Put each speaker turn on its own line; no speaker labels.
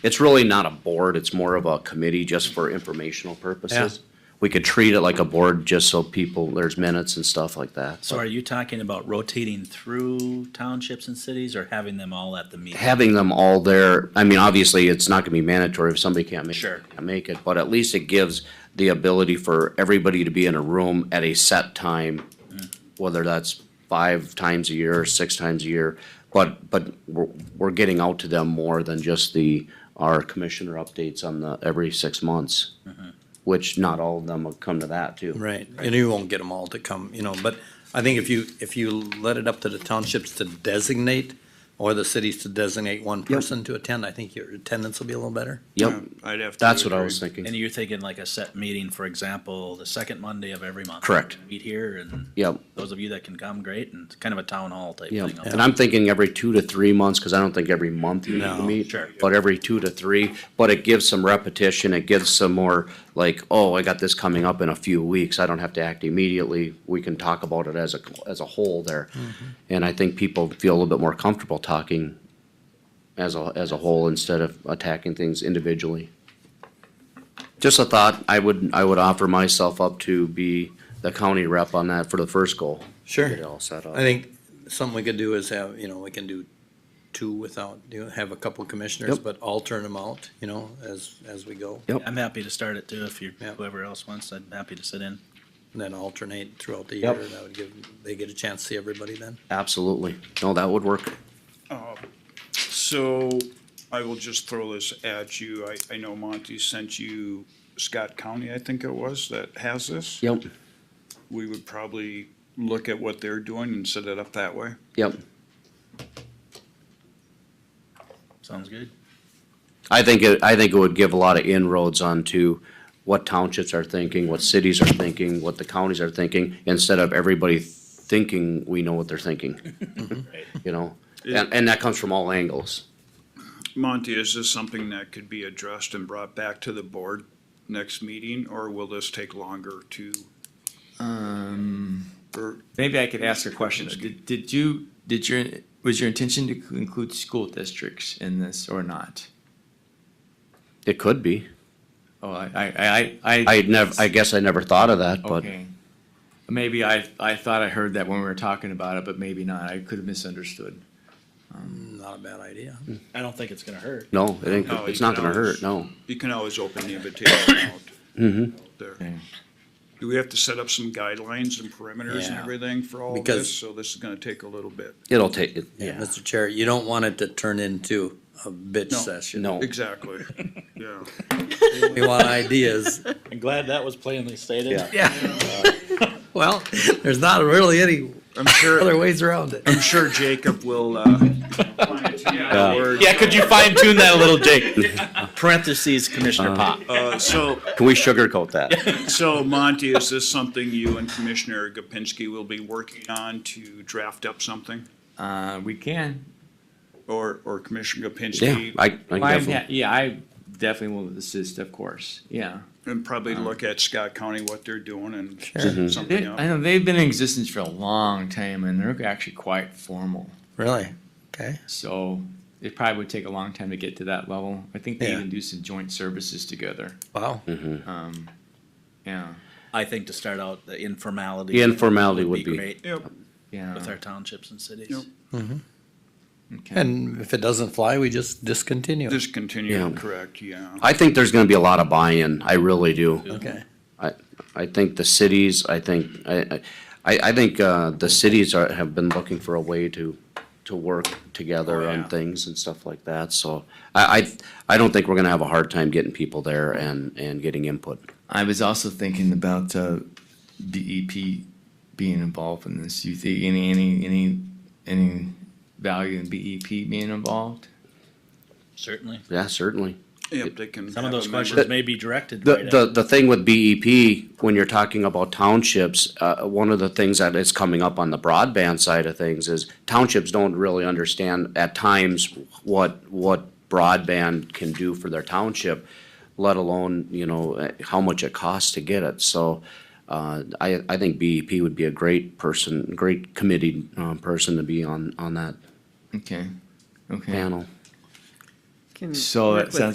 It's really not a board, it's more of a committee just for informational purposes. We could treat it like a board just so people, there's minutes and stuff like that.
So are you talking about rotating through townships and cities or having them all at the meeting?
Having them all there, I mean, obviously, it's not gonna be mandatory if somebody can't make,
Sure.
can't make it, but at least it gives the ability for everybody to be in a room at a set time, whether that's five times a year, or six times a year, but, but we're, we're getting out to them more than just the, our commissioner updates on the, every six months, which not all of them will come to that too.
Right, and you won't get them all to come, you know, but I think if you, if you let it up to the townships to designate or the cities to designate one person to attend, I think your attendance will be a little better.
Yep,
I'd have to.
that's what I
agree.
was
And
thinking,
you're thinking like a set meeting, for example, the second Monday of every month?
Correct.
Meet here and
yep.
those of you that can come, great, and it's kind of a town hall type
Yeah,
thing.
and I'm thinking every two to three months, because I don't think every month you need to
No.
meet,
Sure.
but every two to three, but it gives some repetition, it gives some more, like, oh, I got this coming up in a few weeks, I don't have to act immediately, we can talk about it as a, as a whole there. And I think people feel a little bit more comfortable talking as a, as a whole instead of attacking things individually. Just a thought, I would, I would offer myself up to be the county rep on that for the first goal.
Sure.
Get it all set up.
I think something we could do is have, you know, we can do two without, you know, have a couple commissioners,
Yep.
but alternate them out, you know, as, as we go.
Yep.
I'm happy to start it too, if you,
Yeah.
whoever else wants, I'm happy to sit in.
And then alternate throughout the year,
Yep.
that would give, they get a chance to see everybody then.
Absolutely. No, Oh, that would work.
So I will just throw this at you. I, I know Monty sent you Scott County, I think it was, that has this.
Yep,
We would probably look at what they're doing and set it up that way.
yep.
Sounds good?
I think it, I think it would give a lot of inroads onto what townships are thinking, what cities are thinking, what the counties are thinking, instead of everybody thinking we know what they're thinking.
Mm-hmm.
You know, and, and that comes from all angles.
Monty, is this something that could be addressed and brought back to the board next meeting, or will this take longer to? Um.
Maybe I could ask a question. Did, did you, did your, was your intention to include school districts in this or not?
It could be.
Oh, I, I, I.
I never, I guess I never thought of that, but
Okay. Maybe I, I thought I heard that when we were talking about it, but maybe not. I could have misunderstood.
Not a bad idea.
I don't think it's gonna hurt.
no, it ain't,
No,
it's
you
not
can
gonna hurt,
always-
no.
You can always open the invitation out.
Mm-hmm.
There.
Okay.
Do we have to set up some guidelines and perimeters and
Yeah.
everything for all of
Because-
this? So this is gonna take a little bit.
It'll take, it-
Yeah,
yeah,
Mr. Chair, you don't want it to turn into a bitch
No.
session.
no.
Exactly, yeah.
We want ideas.
I'm glad that was plainly stated.
Yeah.
Well, there's not really any
I'm sure,
other ways around it.
I'm sure Jacob will, uh.
Yeah.
Uh, Yeah, could you fine tune that a little, Jake? Parentheses, Commissioner Pop.
Uh, so,
Can we sugarcoat that?
so Monty, is this something you and Commissioner Gopinski will be working on to draft up something?
Uh, we can.
Or, or Commissioner
Yeah,
Gopinski?
I, I
Well, I'm
definitely,
ha- Yeah, I definitely will assist, of course. Yeah.
And probably look at Scott County, what they're doing and set
They,
something
Mm-hmm.
I
up.
know they've been in existence for a long time and they're actually quite formal.
Really? Okay.
So it probably would take a long time to get to that level. I think they
Yeah.
even do some joint services together.
Wow.
Um, yeah,
I think to start out, the informality.
The informality would be-
great
Yep,
yeah.
With our townships and cities.
Yep.
okay.
And if it doesn't fly, we just discontinue it.
just continue,
Yeah.
correct, yeah.
I think there's gonna be a lot of buy-in, I really do.
Okay.
I, I think the cities, I think, I, I, I think, uh, the cities are, have been looking for a way to, to work together
Oh,
on
yeah.
things and stuff like that, so. I, I, I don't think we're gonna have a hard time getting people there and, and getting input.
I was also thinking about uh, BEP being involved in this. You think any any any any value in BEP being involved?
Certainly.
Yeah, certainly.
Yep, they can.
Some
have
of
a
those
member-
questions may be directed
The,
right
the,
at.
the thing with BEP, when you're talking about townships, uh, one of the things that is coming up on the broadband side of things is townships don't really understand at times what, what broadband can do for their township, let alone, you know, eh, how much it costs to get it. So, uh, I, I think BEP would be a great person, great committee, um, person to be on, on that
Okay, okay.
panel.
Can
So
work
that
with
sounds